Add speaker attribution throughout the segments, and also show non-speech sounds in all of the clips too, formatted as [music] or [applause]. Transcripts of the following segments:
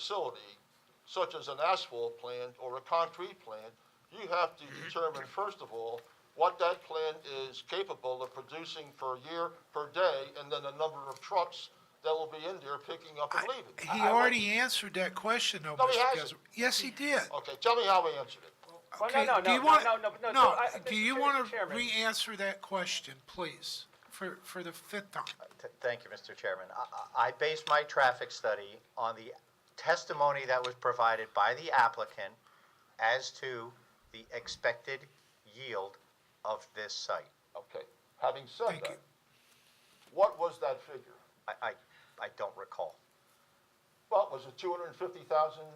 Speaker 1: facility, such as an asphalt plant or a concrete plant, you have to determine, first of all, what that plant is capable of producing per year, per day, and then the number of trucks that will be in there picking up and leaving. I-
Speaker 2: He
Speaker 1: I want-
Speaker 2: already answered that question, though,
Speaker 1: No, he
Speaker 2: Mr.
Speaker 1: hasn't.
Speaker 2: Gasser. Yes, he did.
Speaker 1: Okay, tell me how I answered it.
Speaker 3: Well,
Speaker 2: Okay,
Speaker 3: Oh, no, no,
Speaker 2: do
Speaker 3: no,
Speaker 2: you
Speaker 3: no,
Speaker 2: wanna-
Speaker 3: no, no, no, so I-
Speaker 2: do
Speaker 3: Mr.
Speaker 2: you
Speaker 3: Chair-
Speaker 2: want to
Speaker 3: Chairman.
Speaker 2: re-answer that question, please, for, for the fifth time?
Speaker 4: Th- Thank you, Mr. Chairman. I- I I based my traffic study on the testimony that was provided by the applicant as to the expected yield of this site.
Speaker 1: Okay, having said
Speaker 2: Thank
Speaker 1: that,
Speaker 2: you.
Speaker 1: what was that figure?
Speaker 4: I, I, I don't recall.
Speaker 1: Well, was it two hundred and fifty thousand,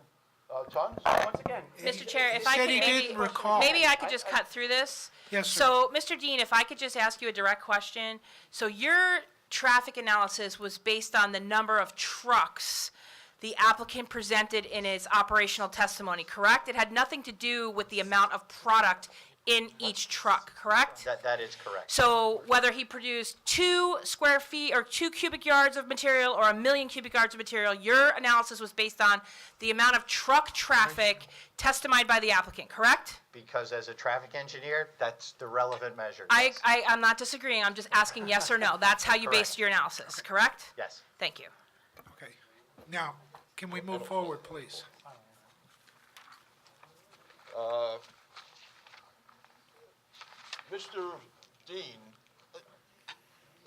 Speaker 1: uh, tons?
Speaker 3: Once again,
Speaker 5: Mr. Chair,
Speaker 2: He
Speaker 5: if I
Speaker 2: said
Speaker 5: could
Speaker 2: he
Speaker 5: maybe,
Speaker 2: didn't recall.
Speaker 5: maybe I could just cut through this.
Speaker 2: Yes, sir.
Speaker 5: So, Mr. Dean, if I could just ask you a direct question. So your traffic analysis was based on the number of trucks the applicant presented in his operational testimony, correct? It had nothing to do with the amount of product in each truck, correct?
Speaker 4: That, that is correct.
Speaker 5: So whether he produced two square feet or two cubic yards of material or a million cubic yards of material, your analysis was based on the amount of truck traffic testified by the applicant, correct?
Speaker 4: Because as a traffic engineer, that's the relevant measure.
Speaker 5: I,
Speaker 4: yes.
Speaker 5: I, I'm not disagreeing, I'm just asking yes or no. That's how you based
Speaker 4: Correct.
Speaker 5: your analysis, correct?
Speaker 4: Yes.
Speaker 5: Thank you.
Speaker 2: Okay, now, can we move forward, please?
Speaker 1: Uh, Mr. Dean,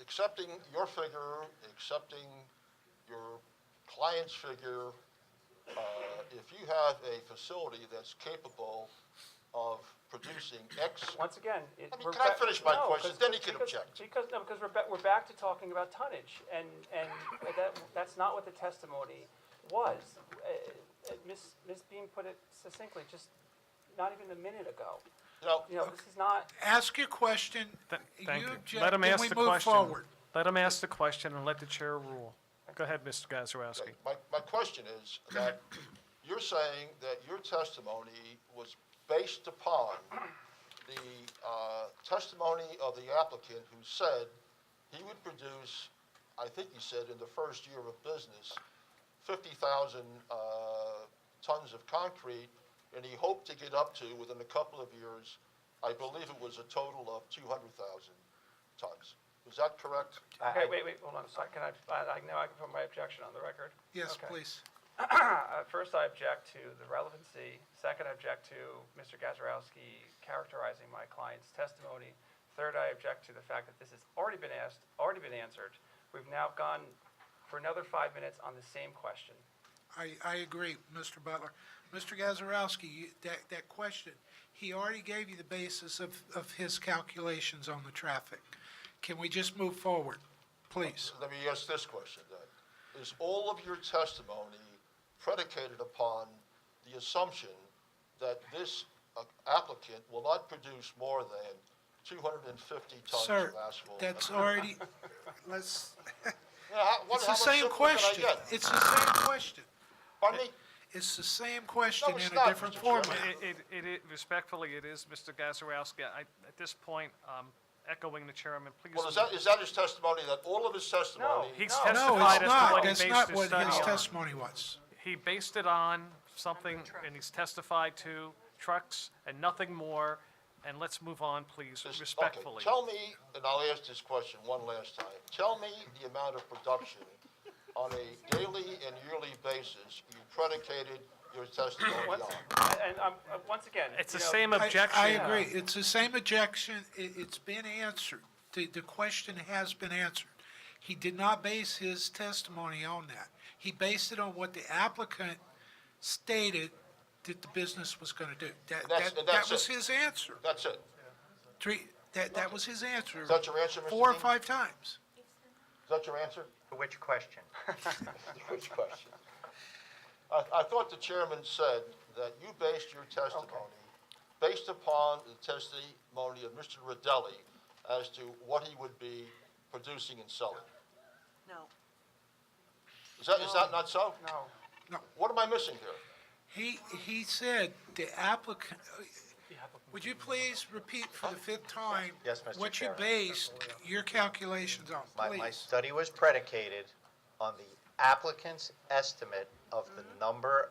Speaker 1: accepting your figure, accepting your client's figure, uh, if you have a facility that's capable of producing X,
Speaker 3: once again, it.
Speaker 1: I mean,
Speaker 3: we're
Speaker 1: can I
Speaker 3: back-
Speaker 1: finish my
Speaker 3: no,
Speaker 1: question?
Speaker 3: 'cause-
Speaker 1: Then he can
Speaker 3: because-
Speaker 1: object.
Speaker 3: Because, no, because we're back, we're back to talking about tonnage, and, and that, that's not what the testimony was. Uh, uh, Ms., Ms. Beam put it succinctly, just not even a minute ago.
Speaker 1: you know,
Speaker 3: You know, this is not,
Speaker 2: Ask your question.
Speaker 6: Th- Thank you.
Speaker 2: object,
Speaker 6: Let him
Speaker 2: then
Speaker 6: ask
Speaker 2: we
Speaker 6: the
Speaker 2: move
Speaker 6: question.
Speaker 2: forward.
Speaker 6: Let him ask the question and let the chair rule. Go ahead, Mr. Gazarovski.
Speaker 1: My, my question is that you're saying that your testimony was based upon the uh, testimony of the applicant who said he would produce, I think he said in the first year of business, 50,000 uh, tons of concrete, and he hoped to get up to, within a couple of years, I believe it was a total of 200,000 tons. Is that correct?
Speaker 4: I-
Speaker 3: okay,
Speaker 4: I-
Speaker 3: wait, wait, hold on a second, can I, I, I- now I can put my objection on the record.
Speaker 2: Yes,
Speaker 3: Okay.
Speaker 2: please.
Speaker 3: Uh, First, I object to the relevancy. Second, I object to Mr. Gazarovski characterizing my client's testimony. Third, I object to the fact that this has already been asked, already been answered. We've now gone for another five minutes on the same question.
Speaker 2: I, I agree, Mr. Butler. Mr. Gazarovski, you- that, that question, he already gave you the basis of, of his calculations on the traffic. Can we just move forward, please?
Speaker 1: Let me ask this question then. Is all of your testimony predicated upon the assumption that this uh, applicant will not produce more than 250 tons
Speaker 2: Sir,
Speaker 1: of asphalt?
Speaker 2: that's already,
Speaker 1: [laughs]
Speaker 2: let's,
Speaker 1: Yeah, how- what-
Speaker 2: it's
Speaker 1: how much
Speaker 2: the same
Speaker 1: simpler can I
Speaker 2: question.
Speaker 1: get?
Speaker 2: It's the same question.
Speaker 1: Pardon me?
Speaker 2: It's the same question
Speaker 1: it's
Speaker 2: in a
Speaker 1: not,
Speaker 2: different
Speaker 1: Mr. Chairman.
Speaker 2: format.
Speaker 6: It, it, it, i- respectfully, it is Mr. Gazarovski. I, at this point, um, echoing the chairman, please.
Speaker 1: Well, is that, is that his testimony, that all of his testimony?
Speaker 6: He's
Speaker 3: No,
Speaker 2: No, it's
Speaker 6: testified as to
Speaker 2: not.
Speaker 6: what he
Speaker 2: That's
Speaker 6: based
Speaker 2: not
Speaker 6: his
Speaker 2: what his
Speaker 6: study on.
Speaker 2: testimony was.
Speaker 6: He based it on something, and he's testified to trucks and nothing more. And let's move on, please,
Speaker 1: Just- okay,
Speaker 6: respectfully.
Speaker 1: Tell me, and I'll ask this question one last time, tell me the amount of production on a daily and yearly basis you predicated your testimony
Speaker 3: Once,
Speaker 1: on?
Speaker 3: and I'm, uh, once again.
Speaker 6: It's
Speaker 3: you
Speaker 6: the
Speaker 3: know,
Speaker 6: same
Speaker 2: I-
Speaker 6: objection.
Speaker 2: I agree. It's the same objection. It, it's been answered. The, the question has been answered. He did not base his testimony on that. He based it on what the applicant stated that the business was gonna do. That,
Speaker 1: That's-
Speaker 2: that, that
Speaker 1: that's
Speaker 2: was
Speaker 1: it.
Speaker 2: his answer.
Speaker 1: That's it.
Speaker 2: Three, that, that was his answer.
Speaker 1: That's your answer, Mr.
Speaker 2: Four or
Speaker 1: Dean?
Speaker 2: five times.
Speaker 1: Is that your
Speaker 3: [laughs]
Speaker 1: answer?
Speaker 4: Which question?
Speaker 1: Which question? I, I thought the chairman said that you based your testimony based upon the testimony of Mr. Rodelli as to what he would be producing and selling.
Speaker 7: No.
Speaker 1: Is that, is that not so?
Speaker 3: No,
Speaker 1: What am I missing here?
Speaker 2: He, he said the applicant, would you please repeat for the fifth time?
Speaker 4: Yes, Mr.
Speaker 2: What you
Speaker 4: Chairman.
Speaker 2: based your calculations on,
Speaker 4: My, my
Speaker 2: please?
Speaker 4: study was predicated on the applicant's estimate
Speaker 5: Mm-hmm.
Speaker 4: of the number